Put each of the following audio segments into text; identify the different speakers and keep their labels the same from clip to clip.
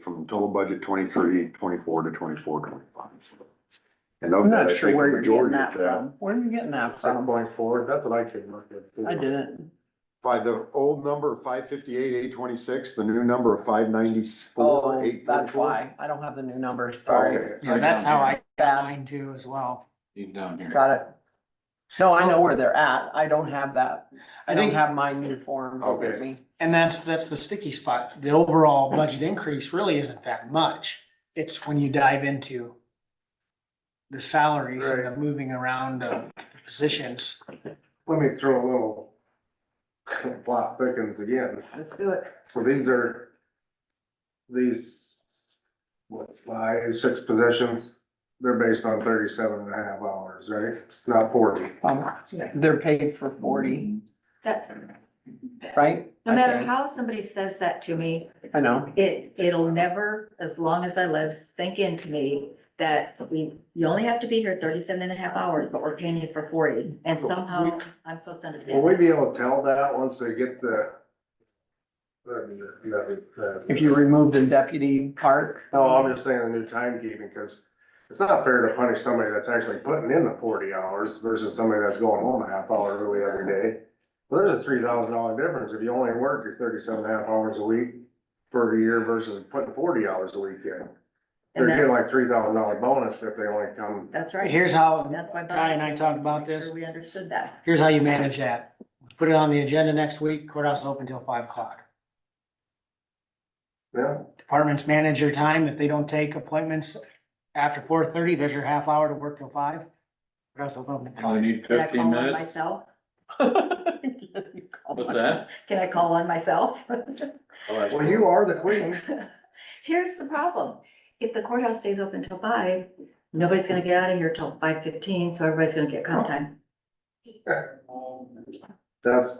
Speaker 1: from total budget twenty-three, twenty-four to twenty-four, twenty-five. And of
Speaker 2: I'm
Speaker 1: that,
Speaker 2: not
Speaker 1: I
Speaker 2: sure
Speaker 1: think
Speaker 2: where
Speaker 1: the
Speaker 2: you're getting
Speaker 1: majority of
Speaker 2: that
Speaker 1: that.
Speaker 2: from. Where are you getting that
Speaker 3: Seven
Speaker 2: from?
Speaker 3: point four, that's what I came up with.
Speaker 2: I didn't.
Speaker 1: By the old number of five fifty-eight, eight twenty-six, the new number of five ninety-four,
Speaker 2: Oh,
Speaker 1: eight thirty-four.
Speaker 2: that's why. I don't have the new number, sorry.
Speaker 4: Yeah, that's how I got
Speaker 2: Bad,
Speaker 4: mine too as well.
Speaker 5: down here.
Speaker 2: got it. No, I know where they're at. I don't have that. I
Speaker 4: I
Speaker 2: don't
Speaker 4: think,
Speaker 2: have my new forms with
Speaker 1: Okay.
Speaker 2: me.
Speaker 4: and that's, that's the sticky spot. The overall budget increase really isn't that much. It's when you dive into the salaries and the moving around of positions.
Speaker 3: Let me throw a little plot thickens again.
Speaker 6: Let's do it.
Speaker 3: So these are, these, what, five, six positions, they're based on thirty-seven and a half hours, right? Not forty.
Speaker 2: Um, They're paid for forty,
Speaker 6: That,
Speaker 2: right?
Speaker 6: no
Speaker 2: I
Speaker 6: matter
Speaker 2: think.
Speaker 6: how somebody says that to me,
Speaker 2: I know.
Speaker 6: it, it'll never, as long as I live, sink into me that we, you only have to be here 37 and a half hours, but we're paying you for forty, and somehow I'm supposed to
Speaker 3: Will we
Speaker 6: understand.
Speaker 3: be able to tell that once they get the? the- the- the-
Speaker 2: If you remove the deputy part,
Speaker 3: No, I'm just saying the new timekeeping, cause it's not fair to punish somebody that's actually putting in the forty hours versus somebody that's going home a half hour early every day. Well, there's a three thousand dollar difference if you only work your thirty-seven and a half hours a week for a year versus putting forty hours a week in. They're
Speaker 6: And
Speaker 3: getting
Speaker 6: that,
Speaker 3: like three thousand dollar bonus if they only come,
Speaker 6: that's
Speaker 4: Right,
Speaker 6: right.
Speaker 4: here's how
Speaker 6: And that's why.
Speaker 4: Ty and I talked about
Speaker 6: Make sure
Speaker 4: this.
Speaker 6: We understood that.
Speaker 4: Here's how you manage that. Put it on the agenda next week, courthouse open till five o'clock.
Speaker 3: yeah,
Speaker 4: Departments manage your time. If they don't take appointments after four thirty, there's your half hour to work till five. Courthouse open till
Speaker 5: I
Speaker 4: five.
Speaker 5: need
Speaker 6: Can I call
Speaker 5: fifteen
Speaker 6: on
Speaker 5: minutes.
Speaker 6: myself?
Speaker 5: What's that?
Speaker 6: Can I call on myself?
Speaker 3: well, you are the queen.
Speaker 6: Here's the problem. If the courthouse stays open till five, nobody's gonna get out of here till five fifteen, so everybody's gonna get comp time.
Speaker 3: That's,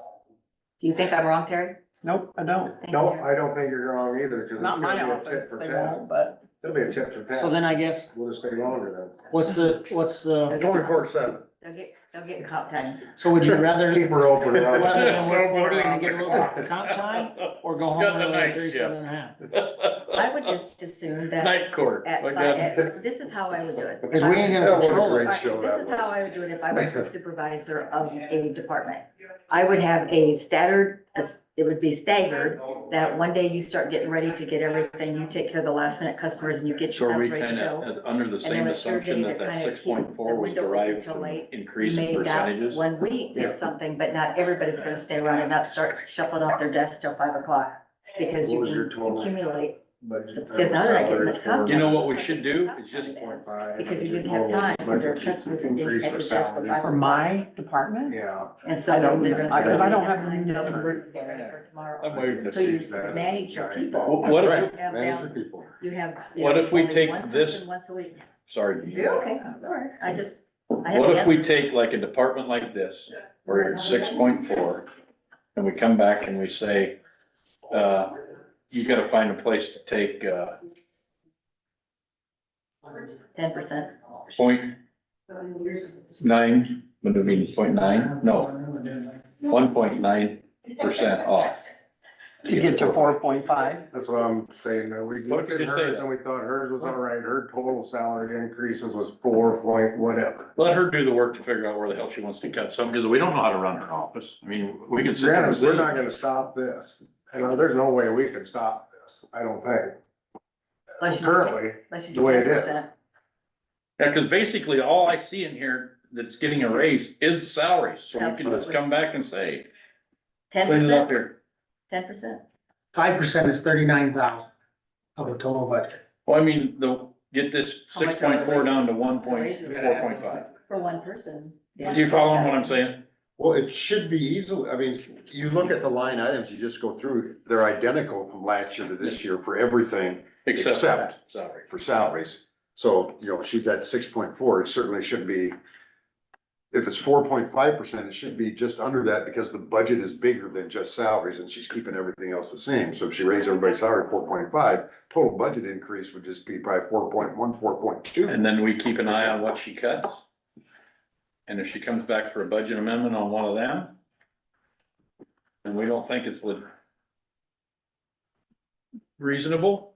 Speaker 6: Do you think I'm wrong, Terry?
Speaker 2: nope, I don't.
Speaker 6: Thank
Speaker 3: no,
Speaker 6: you.
Speaker 3: I don't think you're wrong either, cause.
Speaker 2: Not
Speaker 3: it's
Speaker 2: my
Speaker 3: gonna be a
Speaker 2: office,
Speaker 3: tit for
Speaker 2: they
Speaker 3: tat.
Speaker 2: won't, but
Speaker 3: It'll be a tip for tat.
Speaker 4: So then I guess,
Speaker 3: We'll just stay longer
Speaker 4: what's the, what's the,
Speaker 3: then. Twenty-four seven.
Speaker 6: They'll get, they'll get comp time.
Speaker 4: so would you rather?
Speaker 3: Keep her open.
Speaker 4: Rather than work forty and get a little comp time, or go home
Speaker 5: Got the
Speaker 4: early
Speaker 5: night
Speaker 4: at thirty-seven and a half?
Speaker 6: I would just assume that
Speaker 5: Night court.
Speaker 6: at
Speaker 5: like
Speaker 6: five,
Speaker 5: that.
Speaker 6: at- this is how I would do it.
Speaker 4: Cause we ain't
Speaker 3: That
Speaker 4: gonna
Speaker 3: was a
Speaker 4: control
Speaker 3: great
Speaker 4: it.
Speaker 6: All right,
Speaker 3: show
Speaker 6: This
Speaker 3: that
Speaker 6: is how
Speaker 3: was.
Speaker 6: I would do it if I was the supervisor of a department. I would have a staggered, a s- it would be staggered, that one day you start getting ready to get everything, you take care of the last minute customers and you get
Speaker 5: So
Speaker 6: your
Speaker 5: are we
Speaker 6: house ready to
Speaker 5: kind
Speaker 6: go.
Speaker 5: of, under the same
Speaker 6: then a
Speaker 5: assumption
Speaker 6: survey
Speaker 5: that
Speaker 6: to
Speaker 5: that
Speaker 6: kinda
Speaker 5: six point
Speaker 6: keep
Speaker 5: four
Speaker 6: the
Speaker 5: was
Speaker 6: window
Speaker 5: derived
Speaker 6: until
Speaker 5: from
Speaker 6: late,
Speaker 5: increase in
Speaker 6: Made that
Speaker 5: percentages?
Speaker 6: One week
Speaker 3: Yeah.
Speaker 6: or something, but not everybody's gonna stay around and not start shuffling off their desks till five o'clock, because
Speaker 3: What
Speaker 6: you
Speaker 3: was your
Speaker 6: can
Speaker 3: total?
Speaker 6: accumulate.
Speaker 3: budget?
Speaker 6: Because now they're not getting much comp
Speaker 5: You know
Speaker 6: time.
Speaker 5: what we should do? It's just
Speaker 3: Point five.
Speaker 6: Because you didn't have time, because your customers didn't
Speaker 3: Increase
Speaker 6: have
Speaker 3: for
Speaker 6: to adjust the
Speaker 3: salaries.
Speaker 6: budget.
Speaker 2: for my department,
Speaker 3: Yeah.
Speaker 6: And so.
Speaker 2: I don't,
Speaker 6: they're gonna
Speaker 2: I,
Speaker 6: start
Speaker 2: I don't
Speaker 6: getting
Speaker 2: have
Speaker 6: behind
Speaker 2: any
Speaker 6: up
Speaker 2: number.
Speaker 6: for tomorrow.
Speaker 5: I might have
Speaker 6: So you
Speaker 3: Change that.
Speaker 6: manage your people.
Speaker 5: Wh- What if,
Speaker 1: Right,
Speaker 6: Have
Speaker 1: manage
Speaker 6: down-
Speaker 1: your people.
Speaker 6: You have. you
Speaker 5: What
Speaker 6: know,
Speaker 5: if we
Speaker 6: only
Speaker 5: take
Speaker 6: one
Speaker 5: this-
Speaker 6: person Once a week.
Speaker 5: sorry, do you-
Speaker 6: You're okay, all right. I just. I have
Speaker 5: what
Speaker 6: a
Speaker 5: if
Speaker 6: guess.
Speaker 5: we take like a department like this, where it's six point four, and we come back and we say, uh, you gotta find a place to take, uh,
Speaker 6: Ten percent.
Speaker 5: point nine, what do you mean, point nine? No, one point nine percent off.
Speaker 2: you get to four point five.
Speaker 3: That's what I'm saying, that we looked at
Speaker 5: Just say
Speaker 3: hers
Speaker 5: that.
Speaker 3: and we thought hers was all right, her total salary increases was four point whatever.
Speaker 5: Let her do the work to figure out where the hell she wants to cut some, because we don't know how to run her office. I mean, we can sit there and
Speaker 3: Granted, we're not
Speaker 5: say,
Speaker 3: gonna stop this, and there's no way we can stop this, I don't think, currently, the way it is.
Speaker 5: yeah, cause basically all I see in here that's getting a raise is salaries, so we can just
Speaker 6: Absolutely.
Speaker 5: come back and say,
Speaker 6: Ten
Speaker 5: clean it
Speaker 6: percent,
Speaker 5: up here.
Speaker 6: ten percent.
Speaker 4: Five percent is thirty-nine thousand of the total budget.
Speaker 5: Well, I mean, the, get this
Speaker 6: How much
Speaker 5: six point four down to one point,
Speaker 6: Raise it.
Speaker 5: four point five.
Speaker 6: For one person.
Speaker 5: You following what I'm saying?
Speaker 1: Well, it should be easily, I mean, you look at the line items, you just go through, they're identical from last year to this year for everything Except-
Speaker 5: Salary.
Speaker 1: for salaries. So, you know, she's at six point four, it certainly should be. If it's four point five percent, it should be just under that because the budget is bigger than just salaries and she's keeping everything else the same. So if she raised everybody's salary four point five, total budget increase would just be probably four point one, four point two.
Speaker 5: And then we keep an eye on what she cuts. And if she comes back for a budget amendment on one of them, and we don't think it's lit- reasonable,